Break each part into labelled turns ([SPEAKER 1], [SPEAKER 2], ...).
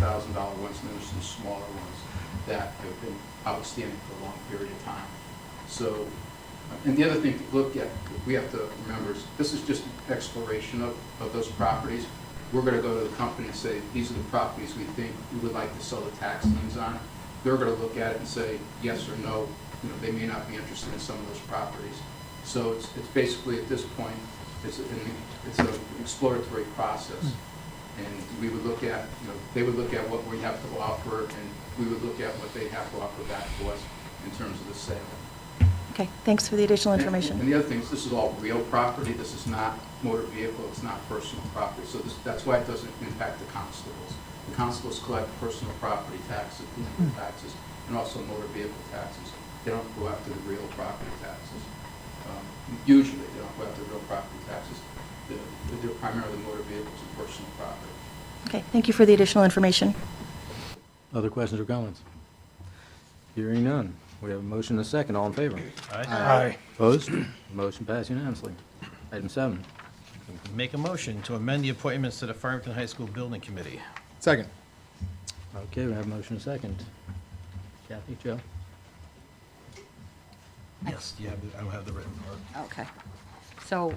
[SPEAKER 1] thousand dollar ones, and there's some smaller ones that have been outstanding for a long period of time. So, and the other thing to look at, we have to remember, is this is just an exploration of, of those properties. We're gonna go to the company and say, these are the properties we think we would like to sell the tax liens on. They're gonna look at it and say, yes or no, you know, they may not be interested in some of those properties. So it's, it's basically, at this point, it's an, it's an exploratory process. And we would look at, you know, they would look at what we have to offer, and we would look at what they have to offer back to us in terms of the sale.
[SPEAKER 2] Okay, thanks for the additional
[SPEAKER 1] And- And the
[SPEAKER 2] information.
[SPEAKER 1] other thing is, this is all real property, this is not motor vehicle, it's not personal property, so this, that's why it doesn't impact the constables. The constables collect personal property taxes, vehicle taxes, and also motor vehicle taxes. They don't go after the real property taxes. Um, Usually, they don't go after real property taxes, They're- they're primarily motor vehicles and personal property.
[SPEAKER 2] Okay, thank you for the additional information.
[SPEAKER 3] Other questions or comments? Hearing none. We have a motion and a second. All in favor?
[SPEAKER 4] Aye.
[SPEAKER 3] Opposed? Motion passed unanimously. Item seven.
[SPEAKER 4] Make a motion to amend the appointments to the Farmington High School Building Committee.
[SPEAKER 5] Second.
[SPEAKER 3] Okay, we have a motion and a second. Kathy, Joe?
[SPEAKER 4] Yes, you have, the- I don't have the written part.
[SPEAKER 6] Okay. So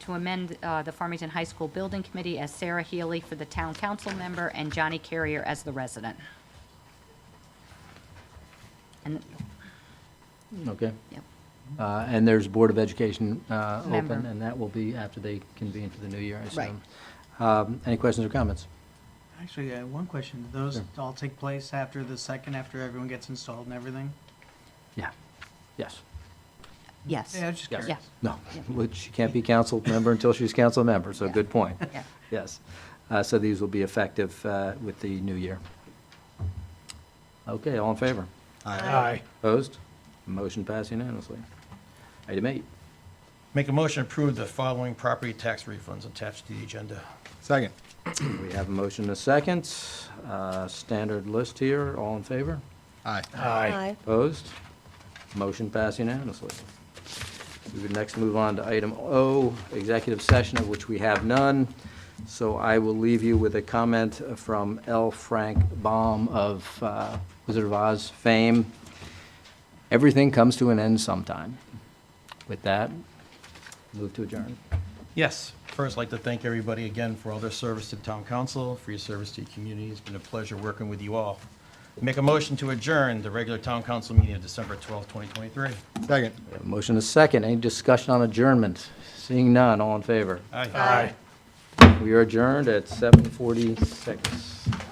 [SPEAKER 6] to amend uh, the Farmington High School Building Committee as Sarah Healy for the town council member and Johnny Carrier as the resident. And,
[SPEAKER 3] Okay.
[SPEAKER 6] yep,
[SPEAKER 3] Uh, And there's Board of Education uh, open,
[SPEAKER 6] Member.
[SPEAKER 3] and that will be after they convene for the new year, I assume.
[SPEAKER 6] Right.
[SPEAKER 3] Um, Any questions or comments?
[SPEAKER 7] Actually, I have one question. Do those
[SPEAKER 3] Sure.
[SPEAKER 7] all take place after the second, after everyone gets installed and everything?
[SPEAKER 3] Yeah. Yes.
[SPEAKER 6] yes.
[SPEAKER 7] Yeah, I was just
[SPEAKER 3] Yes.
[SPEAKER 7] curious.
[SPEAKER 6] Yeah,
[SPEAKER 3] No, which she can't be council member until she's council member, so
[SPEAKER 6] Yeah.
[SPEAKER 3] good point.
[SPEAKER 6] yeah.
[SPEAKER 3] Yes. Uh, So these will be effective uh, with the new year. Okay, all in favor?
[SPEAKER 4] Aye.
[SPEAKER 3] Opposed? Motion passed unanimously. Item eight.
[SPEAKER 4] Make a motion to approve the following property tax refunds attached to the agenda.
[SPEAKER 5] Second.
[SPEAKER 3] We have a motion and a second. Uh, Standard list here. All in favor?
[SPEAKER 5] Aye.
[SPEAKER 2] Aye.
[SPEAKER 3] Opposed? Motion passed unanimously. We would next move on to item O, executive session, of which we have none. So I will leave you with a comment from L. Frank Baum of uh, Wizard of Oz fame. Everything comes to an end sometime. With that, move to adjourn.
[SPEAKER 4] Yes, first, I'd like to thank everybody again for all their service to the town council, for your service to the community. It's been a pleasure working with you all. Make a motion to adjourn the regular town council meeting of December 12th, 2023.
[SPEAKER 5] Second.
[SPEAKER 3] We have a Motion is second. Any discussion on adjournment? Seeing none, all in favor?
[SPEAKER 4] Aye.
[SPEAKER 3] We are adjourned at 7:46.